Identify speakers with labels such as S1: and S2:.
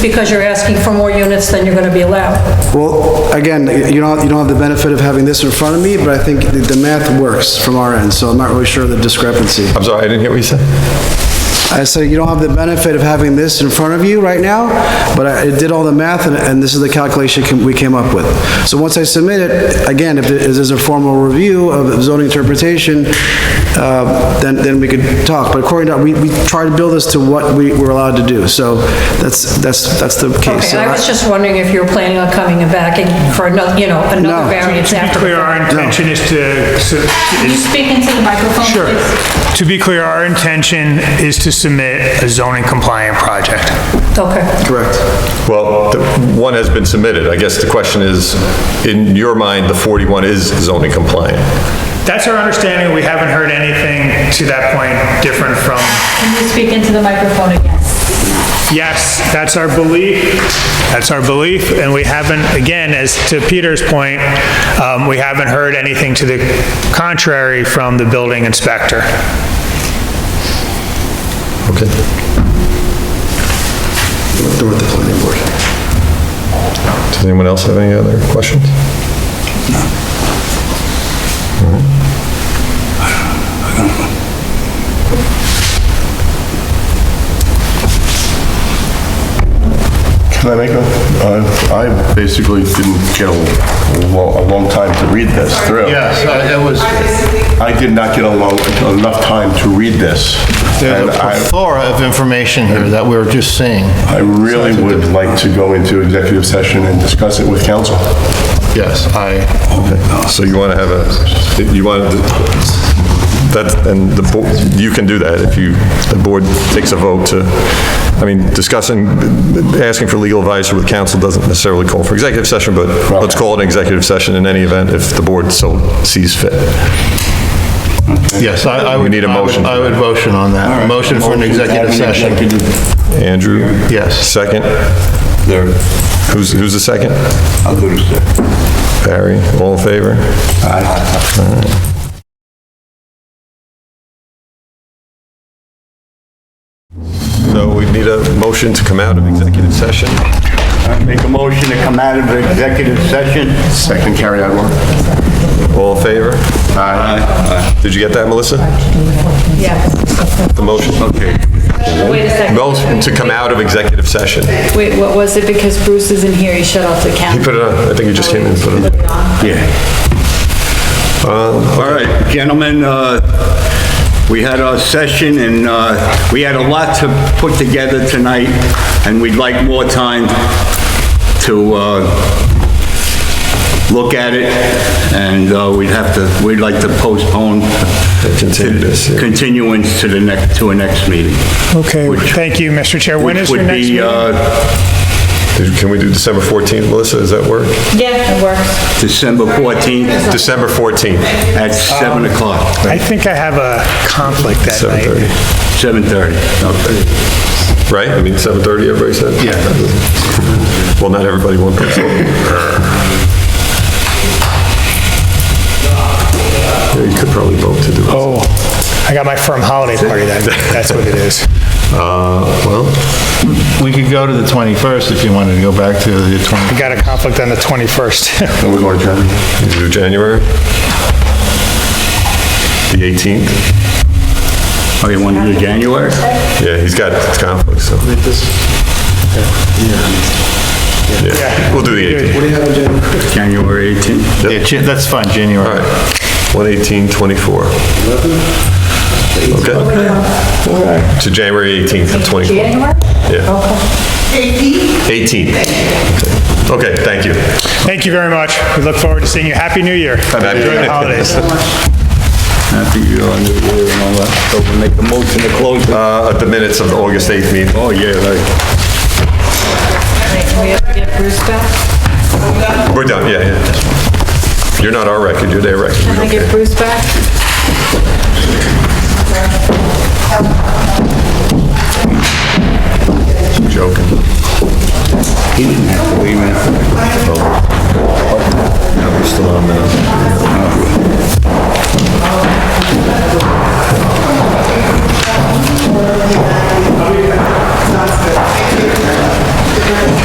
S1: because you're asking for more units than you're gonna be allowed.
S2: Well, again, you don't, you don't have the benefit of having this in front of me, but I think the- the math works from our end, so I'm not really sure of the discrepancy.
S3: I'm sorry, I didn't hear what you said.
S2: I said, you don't have the benefit of having this in front of you right now, but I it did all the math, and- and this is the calculation cam- we came up with. So once I submit it, again, if it is a formal review of zoning interpretation, uh, then, then we could talk. But according to, we, we try to build this to what we were allowed to do, so that's, that's, that's the case.
S1: Okay, I was just wondering if you were planning on coming back and for another, you know,
S2: No.
S1: another variance
S4: To be
S1: after. the
S4: clear,
S1: fact.
S4: our intention is to, su-
S5: Can you
S4: is-
S5: speak into the microphone,
S4: sure.
S5: please?
S4: To be clear, our intention is to submit a zoning compliant project.
S1: Okay.
S2: Correct.
S3: Well, the- one has been submitted. I guess the question is, in your mind, the 41 is zoning compliant.
S4: That's our understanding. We haven't heard anything to that point different from,
S5: Can you speak into the microphone again?
S4: yes, that's our belief, that's our belief, and we haven't, again, as to Peter's point, um, we haven't heard anything to the contrary from the building inspector.
S3: Okay.
S2: Through the planning board.
S3: Does anyone else have any other questions?
S6: Can I make a, uh, I basically didn't get a lo- a long time to read this through.
S7: Yes, I- it Uh, was,
S6: I did not get a long, enough time to read this.
S7: there's
S6: And
S7: a
S6: I,
S7: plethora of information here that we were just seeing.
S6: I really would like to go into executive session and discuss it with council.
S7: Yes, I,
S3: So you want to have a, you want, that, and the, bo- you can do that if you, the board takes a vote to, I mean, discussing, asking for legal advice with counsel doesn't necessarily call for executive session, but let's call it an executive session in any event if the board so sees fit.
S7: yes, I I
S3: We
S7: would.
S3: need a
S7: I would-
S3: motion for
S7: I would
S3: that.
S7: motion on that. Motion for an executive session.
S3: Andrew?
S7: Yes.
S3: Second? Who's, who's the second?
S6: I'll do this.
S3: Barry, all in favor? So we need a motion to come out of executive session.
S6: Make a motion to come out of executive session. Second, carry on.
S3: All in favor? Aye. Did you get that, Melissa?
S1: Yes.
S3: The motion? Okay.
S8: Wait a second.
S3: Motion to come out of executive session. He
S8: Wait, what was it? Because Bruce isn't here, he shut off the camera.
S3: put it on, I think he just came in and put it on.
S9: All right, gentlemen, uh, we had our session, and uh, we had a lot to put together tonight, and we'd like more time to uh, look at it, and uh, we'd have to, we'd like to postpone
S3: Continue this, yeah.
S9: continuance to the next, to a next meeting.
S4: Okay, thank you, Mr. Chair. When is your
S9: Would
S4: next
S9: be,
S4: meeting?
S9: uh,
S3: Did- Can we do December 14th, Melissa? Does that work?
S8: Yeah, it works.
S9: December 14th
S3: December 14th,
S9: at 7
S4: Um,
S9: o'clock,
S4: I think I have a conflict that night.
S3: 7:30.
S9: 7:30. Okay.
S3: Right? I mean, 7:30, everybody said? Yeah. Well, not everybody won. Yeah, You could probably vote to do it.
S4: Oh, I got my firm holiday party that, that's what it is.
S3: Uh, Well,
S7: We could go to the 21st if you wanted to go back to the 20.
S4: I got a conflict on the 21st.
S6: Then we're going to adjourn.
S3: You do January? The 18th?
S9: Oh, you want to do January?
S3: Yeah, he's got conflicts, so. Yeah, we'll do the 18th.
S9: January 18th?
S7: Yeah, Jan- That's fine,
S3: All
S7: January.
S3: right. 11824. Okay. To January 18th, of 24. January? Yeah. 18? 18th. Okay, thank you.
S4: Thank you very much. We look forward to seeing you. Happy New Year.
S3: New
S4: Enjoy
S3: Year. Uh,
S4: the holidays.
S9: Happy New Year and all that. So we make the motion to close the
S3: Uh, At the minutes of the August 8th meeting. Oh, yeah, right.
S8: We have to get Bruce back?
S3: We're done, yeah, yeah. You're not our record, you're their record. We
S8: Can
S3: don't
S8: I get
S3: care.
S8: Bruce back?
S3: joking.